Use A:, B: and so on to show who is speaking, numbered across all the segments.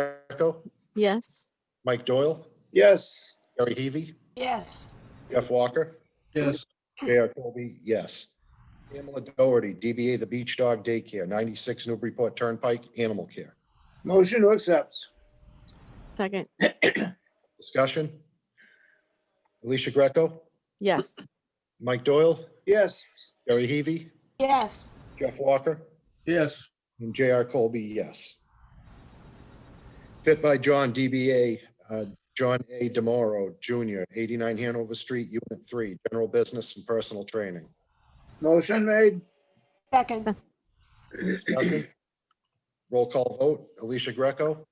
A: DeGraco,
B: Yes.
A: Mike Doyle,
C: Yes.
A: Gary Heavy,
D: Yes.
A: Jeff Walker,
C: Yes.
A: J.R. Colby, yes. Pamela Doherty, DBA The Beach Dog Daycare, 96 Newburyport Turnpike, Animal Care.
C: Motion to accept.
B: Second.
A: Discussion? Alicia Greco,
B: Yes.
A: Mike Doyle,
C: Yes.
A: Gary Heavy,
D: Yes.
A: Jeff Walker,
C: Yes.
A: and J.R. Colby, yes. Fit by John, DBA uh, John A. Demoro Jr., 89 Hanover Street, Unit 3, General Business and Personal Training.
C: Motion made.
D: Second.
A: Discussion? Roll call vote, Alicia Greco,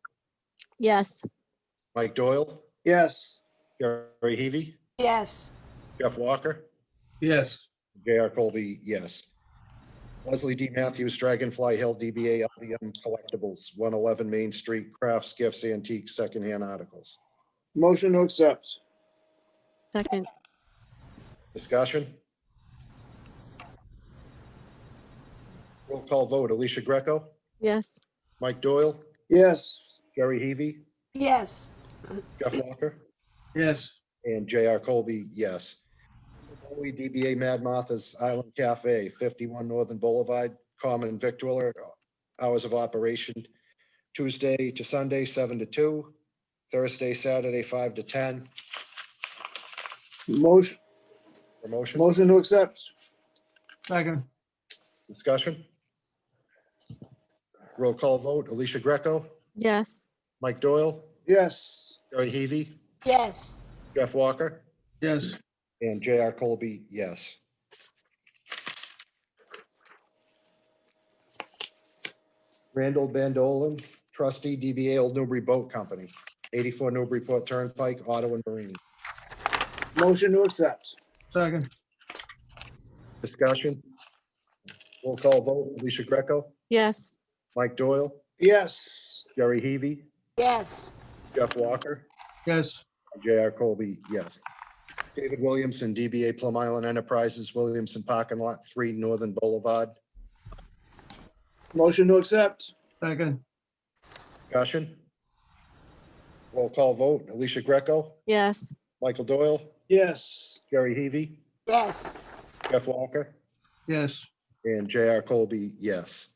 B: Yes.
A: Mike Doyle,
C: Yes.
A: Gary Heavy,
D: Yes.
A: Jeff Walker,
C: Yes.
A: J.R. Colby, yes. Leslie D. Matthews, Dragonfly Hill, DBA LBM Collectibles, 111 Main Street, Crafts, Gifts, Antiques, Secondhand Articles.
C: Motion to accept.
B: Second.
A: Discussion? Roll call vote, Alicia Greco,
B: Yes.
A: Mike Doyle,
C: Yes.
A: Jerry Heavy,
D: Yes.
A: Jeff Walker,
C: Yes.
A: and J.R. Colby, yes. Foley, DBA Mad Martha's Island Cafe, 51 Northern Boulevard, common victualler, hours of operation, Tuesday to Sunday, 7 to 2, Thursday, Saturday, 5 to 10.
C: Motion,
A: Promotion,
C: motion to accept.
E: Second,
A: discussion? Roll call vote, Alicia Greco,
B: Yes.
A: Mike Doyle,
C: Yes.
A: Jerry Heavy,
D: Yes.
A: Jeff Walker,
E: yes,
A: and J.R. Colby, yes. Randall Bandolan, trustee, DBA Old Newbury Boat Company, 84 Newburyport Turnpike, Ottawa Marine.
C: Motion to accept.
E: second,
A: Discussion? Roll call vote, Alicia Greco,
B: Yes.
A: Mike Doyle,
C: Yes.
A: Jerry Heavy,
D: Yes.
A: Jeff Walker,
E: yes,
A: J.R. Colby, yes. David Williamson, DBA Plum Island Enterprises, Williamson Parking Lot 3, Northern Boulevard.
C: Motion to accept.
E: second,
A: Discussion? Roll call vote, Alicia Greco,
B: Yes.
A: Michael Doyle,
C: Yes.
A: Jerry Heavy,
D: Yes.
A: Jeff Walker,
E: yes,
A: and J.R. Colby, yes.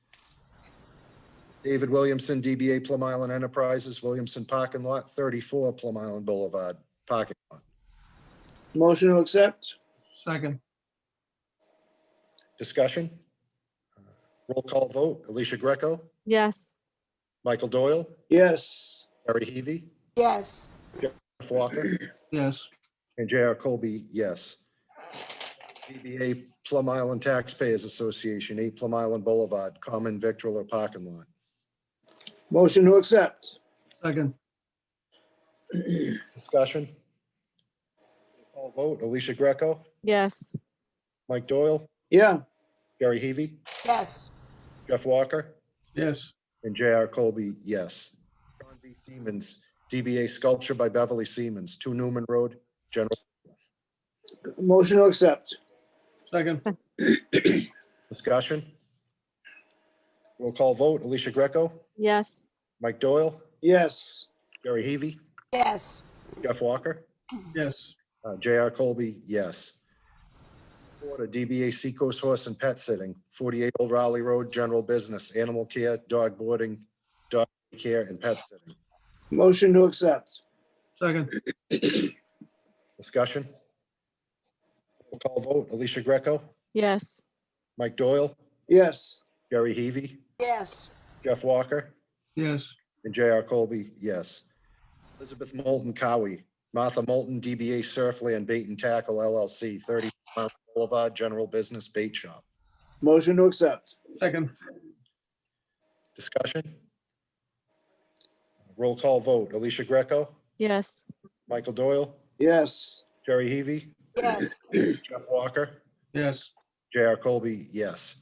A: David Williamson, DBA Plum Island Enterprises, Williamson Parking Lot, 34 Plum Island Boulevard, parking lot.
C: Motion to accept.
E: second,
A: Discussion? Roll call vote, Alicia Greco,
B: Yes.
A: Michael Doyle,
C: Yes.
A: Jerry Heavy,
D: Yes.
A: Jeff Walker,
E: yes,
A: And J.R. Colby, yes. DBA Plum Island Taxpayers Association, 8 Plum Island Boulevard, common victualler parking lot.
C: Motion to accept.
E: second,
A: Discussion? All vote, Alicia Greco,
B: Yes.
A: Mike Doyle,
C: Yeah.
A: Gary Heavy,
D: Yes.
A: Jeff Walker,
E: yes,
A: and J.R. Colby, yes. John B. Siemens, DBA Sculpture by Beverly Siemens, 2 Newman Road, general.
C: Motion to accept.
E: second,
A: Discussion? Roll call vote, Alicia Greco,
B: Yes.
A: Mike Doyle,
C: Yes.
A: Gary Heavy,
D: Yes.
A: Jeff Walker,
E: yes,
A: Uh, J.R. Colby, yes. Order DBA Seacoast Horse and Pet Sitting, 48 Old Raleigh Road, general business, animal care, dog boarding, dog care, and pet sitting.
C: Motion to accept.
E: second,
A: Discussion? Roll Call vote, Alicia Greco,
B: Yes.
A: Mike Doyle,
C: Yes.
A: Gary Heavy,
D: Yes.
A: Jeff Walker,
E: yes,
A: and J.R. Colby, yes. Elizabeth Moulton Cowie, Martha Moulton, DBA Surfland Bait and Tackle LLC, 30 Mount Boulevard, general business, bait shop.
C: Motion to accept.
E: second,
A: Discussion? Roll call vote. Alicia Greco,
B: Yes.
A: Michael Doyle,
C: Yes.
A: Jerry Heavy,
D: Yes.
A: Jeff Walker,
E: yes,
A: J.R. Colby, yes.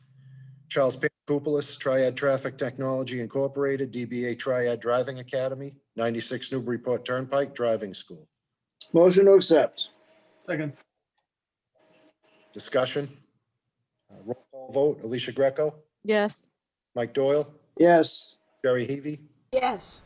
A: Charles Pankoupolis, Triad Traffic Technology Incorporated, DBA Triad Driving Academy, 96 Newburyport Turnpike Driving School.
C: Motion to accept.
E: second,
A: Discussion? Uh, Roll call vote. Alicia Greco,
B: Yes.
A: Mike Doyle,
C: Yes.
A: Jerry Heavy,
D: Yes.